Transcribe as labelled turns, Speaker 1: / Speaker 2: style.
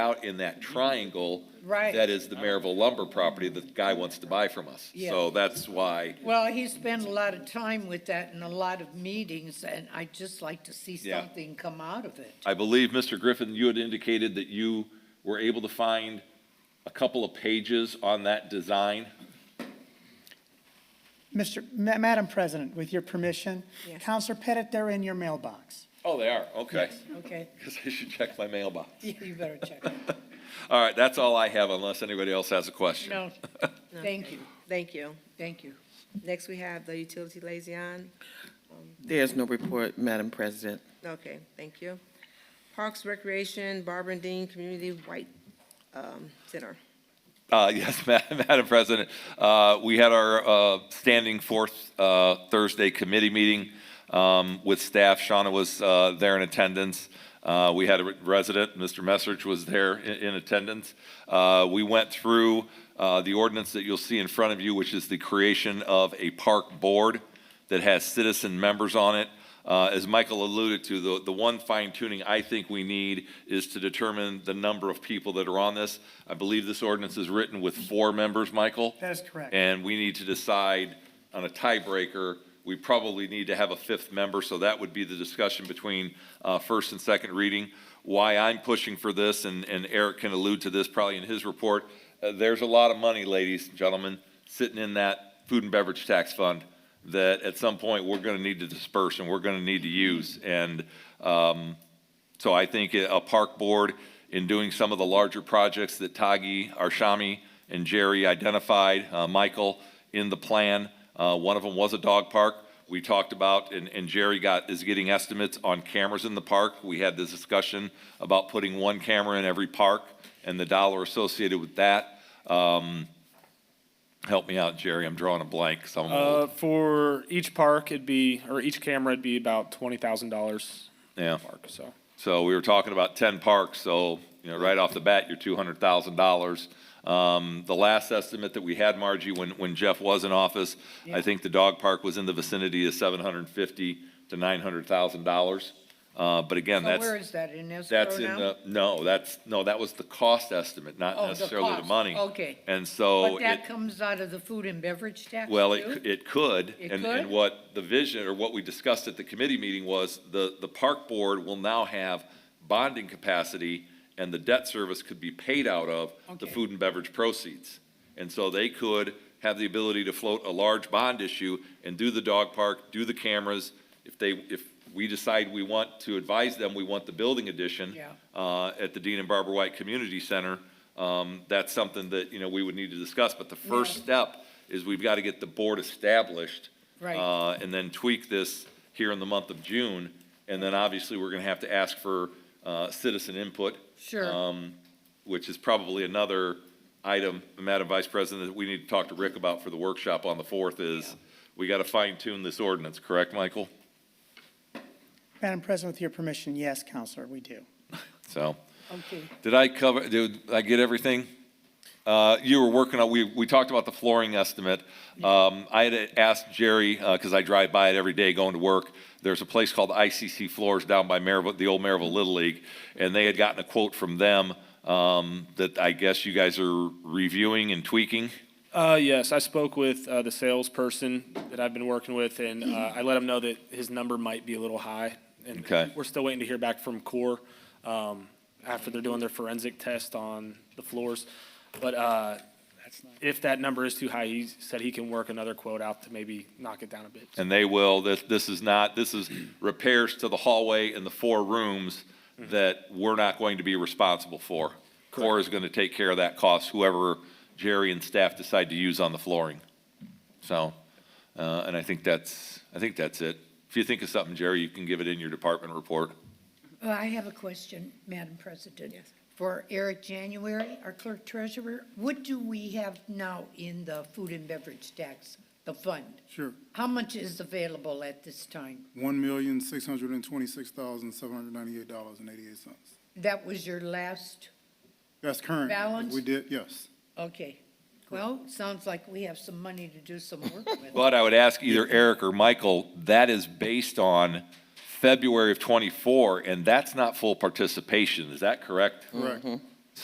Speaker 1: out in that triangle.
Speaker 2: Mm-hmm. Right.
Speaker 1: That is the Maryville lumber property that the guy wants to buy from us.
Speaker 2: Yeah.
Speaker 1: So that's why,
Speaker 2: Well, he spent a lot of time with that and a lot of meetings, and I'd just like to see
Speaker 1: Yeah.
Speaker 2: something come out of it.
Speaker 1: I believe, Mr. Griffin, you had indicated that you were able to find a couple of pages on that design.
Speaker 3: Mr., Ma- Madam President, with your permission,
Speaker 2: Yes.
Speaker 3: Counselor Pettit, they're in your mailbox.
Speaker 1: Oh, they are, okay.
Speaker 2: Okay,
Speaker 1: Because I should check my mailbox.
Speaker 2: you better check.
Speaker 1: All right, that's all I have unless anybody else has a question.
Speaker 2: No, thank you,
Speaker 4: Thank you.
Speaker 2: thank you.
Speaker 4: Next, we have the utility liaison.
Speaker 5: There's no report, Madam President.
Speaker 4: Okay, thank you. Parks Recreation, Barbara and Dean Community White um, Center.
Speaker 1: Uh, Yes, Ma- Madam President, uh, we had our uh, standing fourth uh, Thursday committee meeting um, with staff. Shauna was uh, there in attendance. Uh, We had a resident, Mr. Messrich was there i- in attendance. Uh, We went through uh, the ordinance that you'll see in front of you, which is the creation of a park board that has citizen members on it. Uh, As Michael alluded to, the, the one fine tuning I think we need is to determine the number of people that are on this. I believe this ordinance is written with four members, Michael?
Speaker 3: That is correct.
Speaker 1: And we need to decide on a tiebreaker, we probably need to have a fifth member, so that would be the discussion between uh, first and second reading. Why I'm pushing for this, and and Eric can allude to this probably in his report, uh, there's a lot of money, ladies and gentlemen, sitting in that food and beverage tax fund that at some point, we're going to need to disperse and we're going to need to use. And um, so I think a park board, in doing some of the larger projects that Tagi, Arshami, and Jerry identified, uh, Michael, in the plan, uh, one of them was a dog park. We talked about, and, and Jerry got, is getting estimates on cameras in the park. We had this discussion about putting one camera in every park and the dollar associated with that. Um, Help me out, Jerry, I'm drawing a blank, so I'm old.
Speaker 6: Uh, for each park, it'd be, or each camera, it'd be about twenty thousand dollars.
Speaker 1: Yeah.
Speaker 6: Park, so.
Speaker 1: So we were talking about ten parks, so, you know, right off the bat, you're two hundred thousand dollars. Um, the last estimate that we had, Margie, when, when Jeff was in office, I think the dog park was in the vicinity of seven hundred and fifty to nine hundred thousand dollars. Uh, but again,
Speaker 2: So
Speaker 1: that's.
Speaker 2: where is that, in escrow now?
Speaker 1: That's in the, no, that's, no, that was the cost estimate, not
Speaker 2: Oh, the
Speaker 1: necessarily the
Speaker 2: cost,
Speaker 1: money.
Speaker 2: okay.
Speaker 1: And so.
Speaker 2: But
Speaker 1: oh, it-
Speaker 2: that comes out of the food and beverage tax,
Speaker 1: well,
Speaker 2: too?
Speaker 1: it, c- it could.
Speaker 2: It
Speaker 1: and-
Speaker 2: could?
Speaker 1: And what the vision, or what we discussed at the committee meeting was, the, the park board will now have bonding capacity, and the debt service could be paid out of the
Speaker 2: Okay.
Speaker 1: food and beverage proceeds. And so they could have the ability to float a large bond issue and do the dog park, do the cameras. If they, if we decide we want to advise them, we want the building addition
Speaker 2: Yeah.
Speaker 1: uh, at the Dean and Barbara White Community Center, um, that's something that, you know, we would need to discuss. But the first step is we've got to get the board established.
Speaker 2: Right.
Speaker 1: uh, And then tweak this here in the month of June. And then obviously, we're going to have to ask for uh, citizen input.
Speaker 2: Sure.
Speaker 1: um, Which is probably another item, Madam Vice President, that we need to talk to Rick about for the workshop on the 4th is, we got to fine tune this ordinance, correct, Michael?
Speaker 3: Madam President, with your permission, yes, Counselor, we do.
Speaker 1: So.
Speaker 2: Okay,
Speaker 1: Did I cover, did I get everything? Uh, You were working on, we, we talked about the flooring estimate. Um, I had asked Jerry, because I drive by it every day going to work, there's a place called ICC Floors down by Maryville, the old Maryville Little League, and they had gotten a quote from them um, that I guess you guys are reviewing and tweaking.
Speaker 6: Uh, yes, I spoke with, uh, the salesperson that I've been working with, and, uh, I let him know that his number might be a little high. and
Speaker 1: Okay.
Speaker 6: We're still waiting to hear back from Core, um, after they're doing their forensic test on the floors. But, uh, if that number is too high, he said he can work another quote out to maybe knock it down a bit.
Speaker 1: And they will, this, this is not, this is repairs to the hallway and the four rooms that we're not going to be responsible for. Core is going to take care of that cost, whoever Jerry and staff decide to use on the flooring. So, uh, and I think that's, I think that's it. If you think of something, Jerry, you can give it in your department report.
Speaker 2: Well, Uh, I have a question, Madam President.
Speaker 4: Yes.
Speaker 2: For Eric January, our clerk treasurer, what do we have now in the food and beverage tax, the fund?
Speaker 7: Sure.
Speaker 2: How much is available at this time?
Speaker 7: One million, six hundred and twenty-six thousand, seven hundred and ninety-eight dollars and eighty-eight cents.
Speaker 2: That was your last,
Speaker 7: That's current.
Speaker 2: Balance?
Speaker 7: We did, yes.
Speaker 2: okay. Well, sounds like we have some money to do some work with.
Speaker 1: But I would ask either Eric or Michael, that is based on February of '24, and that's not full participation, is that correct?
Speaker 7: Correct.